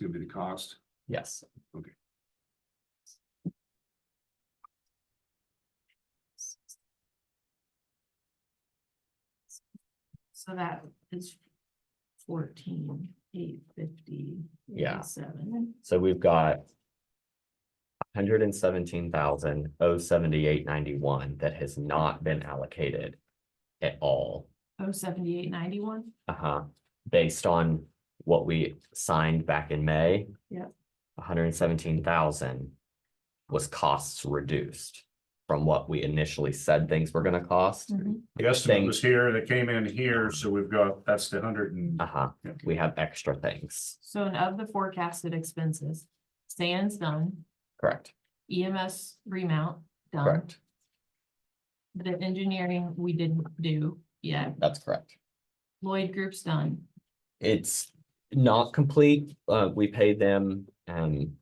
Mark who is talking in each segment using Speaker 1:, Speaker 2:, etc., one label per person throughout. Speaker 1: It's gonna be the cost.
Speaker 2: Yes.
Speaker 1: Okay.
Speaker 3: So that is fourteen, eight fifty.
Speaker 2: Yeah.
Speaker 3: Seven.
Speaker 2: So we've got. Hundred and seventeen thousand oh seventy-eight ninety-one that has not been allocated. At all,
Speaker 3: Oh, seventy-eight, ninety-one?
Speaker 2: uh-huh, based on what we signed back in May.
Speaker 3: Yep.
Speaker 2: hundred and seventeen thousand. Was costs reduced from what we initially said things were gonna cost.
Speaker 3: Mm-hmm.
Speaker 1: The estimate was here, that came in here, so we've got, that's the hundred and.
Speaker 2: Uh-huh,
Speaker 1: Okay.
Speaker 2: we have extra things,
Speaker 3: So and of the forecasted expenses, sand's done,
Speaker 2: correct,
Speaker 3: EMS remount done.
Speaker 2: correct,
Speaker 3: The engineering, we didn't do yet.
Speaker 2: that's correct.
Speaker 3: Lloyd Group's done.
Speaker 2: It's not complete, uh, we paid them, um.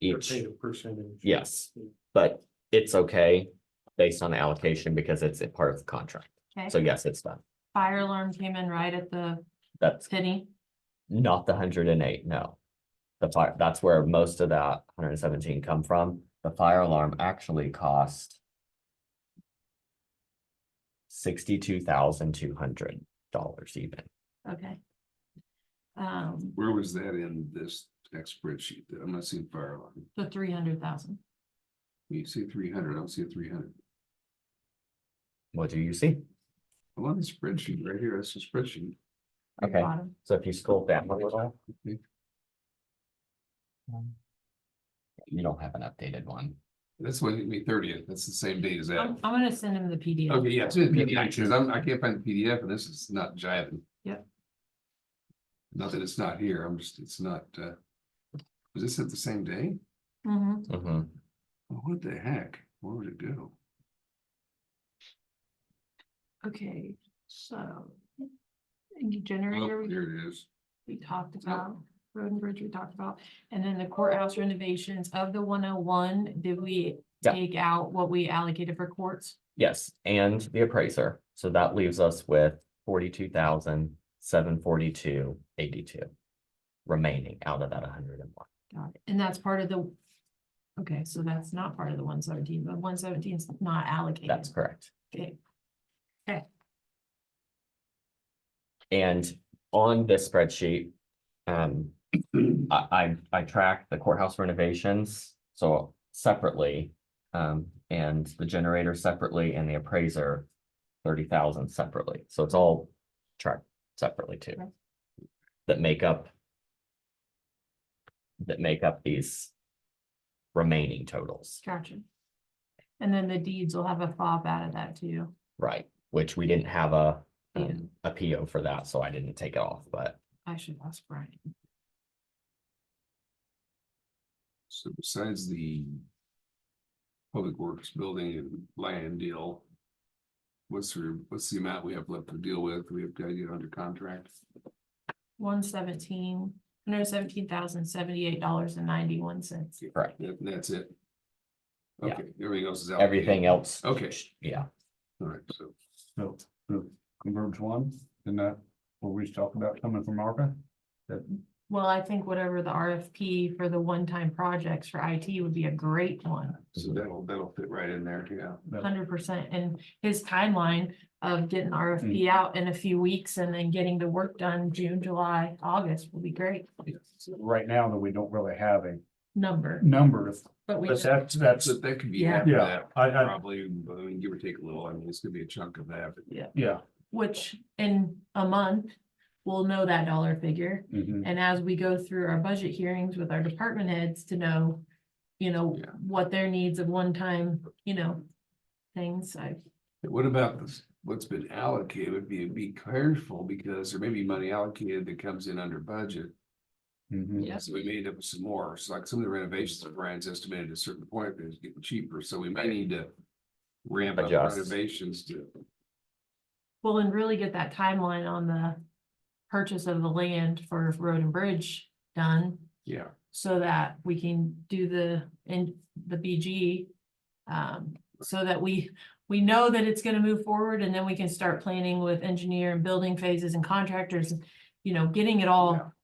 Speaker 2: Each,
Speaker 1: percentage.
Speaker 2: yes, but it's okay based on the allocation because it's a part of the contract. So
Speaker 3: Okay,
Speaker 2: yes, it's done.
Speaker 3: fire alarm came in right at the
Speaker 2: That's
Speaker 3: penny.
Speaker 2: not the hundred and eight, no. The fire, that's where most of that hundred and seventeen come from. The fire alarm actually cost sixty-two thousand two hundred dollars even.
Speaker 3: Okay. Um,
Speaker 1: Where was that in this next spreadsheet? I'm not seeing fire alarm.
Speaker 3: the three hundred thousand.
Speaker 1: You see three hundred, I don't see a three hundred.
Speaker 2: What do you see?
Speaker 1: I'm on the spreadsheet right here, that's the spreadsheet.
Speaker 2: Okay. So if you scroll down a little.
Speaker 1: Okay.
Speaker 2: Um, You don't have an updated one.
Speaker 1: That's what hit me thirtieth, that's the same date as
Speaker 3: I'm,
Speaker 1: that.
Speaker 3: I'm gonna send him the PDF.
Speaker 1: Okay, yeah, it's in
Speaker 2: Yeah.
Speaker 1: PDF, because I'm, I can't find the PDF and this is not jiving.
Speaker 3: Yep.
Speaker 1: Not that it's not here, I'm just, it's not, uh, was this at the same day?
Speaker 3: Mhm.
Speaker 2: Mhm.
Speaker 1: Oh, What the heck? Where would it go?
Speaker 3: Okay, so.
Speaker 1: Oh,
Speaker 3: Generator, we,
Speaker 1: here it is.
Speaker 3: we
Speaker 2: Oh.
Speaker 3: talked about, road and bridge we talked about, and then the courthouse renovations of the one oh one, did we?
Speaker 2: Yeah.
Speaker 3: Take out what we allocated for courts?
Speaker 2: Yes, and the appraiser. So that leaves us with forty-two thousand, seven forty-two, eighty-two. Remaining out of that hundred and one.
Speaker 3: Got it. And that's part of the. Okay, so that's not part of the one seventeen, but one seventeen is not allocated.
Speaker 2: That's correct.
Speaker 3: Okay,
Speaker 2: And on this spreadsheet, um, I, I, I track the courthouse renovations, so separately. Um, and the generator separately and the appraiser thirty thousand separately, so it's all tracked separately too.
Speaker 3: Okay.
Speaker 2: That make up. That make up these remaining totals,
Speaker 3: gotcha. And then the deeds will have a fob out of that too.
Speaker 2: right, which we didn't have a,
Speaker 3: Yeah.
Speaker 2: um, a PO for that, so I didn't take it off, but.
Speaker 3: I should ask Brian.
Speaker 1: So besides the. Public Works Building and land deal. What's the, what's the amount we have left to deal with? We have got to get under contract.
Speaker 3: One seventeen, hundred seventeen thousand seventy-eight dollars and ninety-one cents.
Speaker 2: Correct.
Speaker 1: That- That's it.
Speaker 2: Yeah.
Speaker 1: Okay, everything else is. out.
Speaker 2: Everything else.
Speaker 1: Okay.
Speaker 2: Yeah,
Speaker 1: All right, so. So, converge one, and that, what we talked about coming from ARPA?
Speaker 3: Well, I think whatever the RFP for the one-time projects for IT would be a great one,
Speaker 1: So
Speaker 2: Mhm.
Speaker 1: that'll, that'll fit right in there, yeah.
Speaker 3: hundred percent. And his timeline of getting
Speaker 1: Mm.
Speaker 3: RFP out in a few weeks and then getting the work done June, July, August will be great
Speaker 4: right now that we don't really have a
Speaker 3: number,
Speaker 4: number of,
Speaker 3: but we.
Speaker 4: but
Speaker 3: know-
Speaker 4: that's, that's,
Speaker 1: So that could be
Speaker 3: Yeah.
Speaker 1: half of
Speaker 4: Yeah,
Speaker 1: that,
Speaker 4: I, I,
Speaker 1: probably, but I mean, give or take a little, I mean, it's gonna be a chunk of that. but
Speaker 4: yeah.
Speaker 3: Which in a month, we'll know that dollar figure.
Speaker 4: mhm.
Speaker 3: And as we go through our budget hearings with our department heads to know, you know,
Speaker 1: Yeah.
Speaker 3: what their needs of one-time, you know, things, I,
Speaker 1: What about this, what's been allocated, be, be careful, because there may be money allocated that comes in under budget.
Speaker 4: mhm.
Speaker 3: Yes.
Speaker 1: So we may end up with some more, so like some of the renovations that Brian's estimated at a certain point, is getting cheaper, so we may need to. Ramp up
Speaker 2: Adjust.
Speaker 1: renovations to,
Speaker 3: well, and really get that timeline on the purchase of the land for road and bridge done,
Speaker 1: yeah,
Speaker 3: so that we can do the, in the BG. Um, so that we, we know that it's gonna move forward, and then we can start planning with engineer and building phases and contractors
Speaker 4: you know, getting it
Speaker 3: Yeah.
Speaker 4: all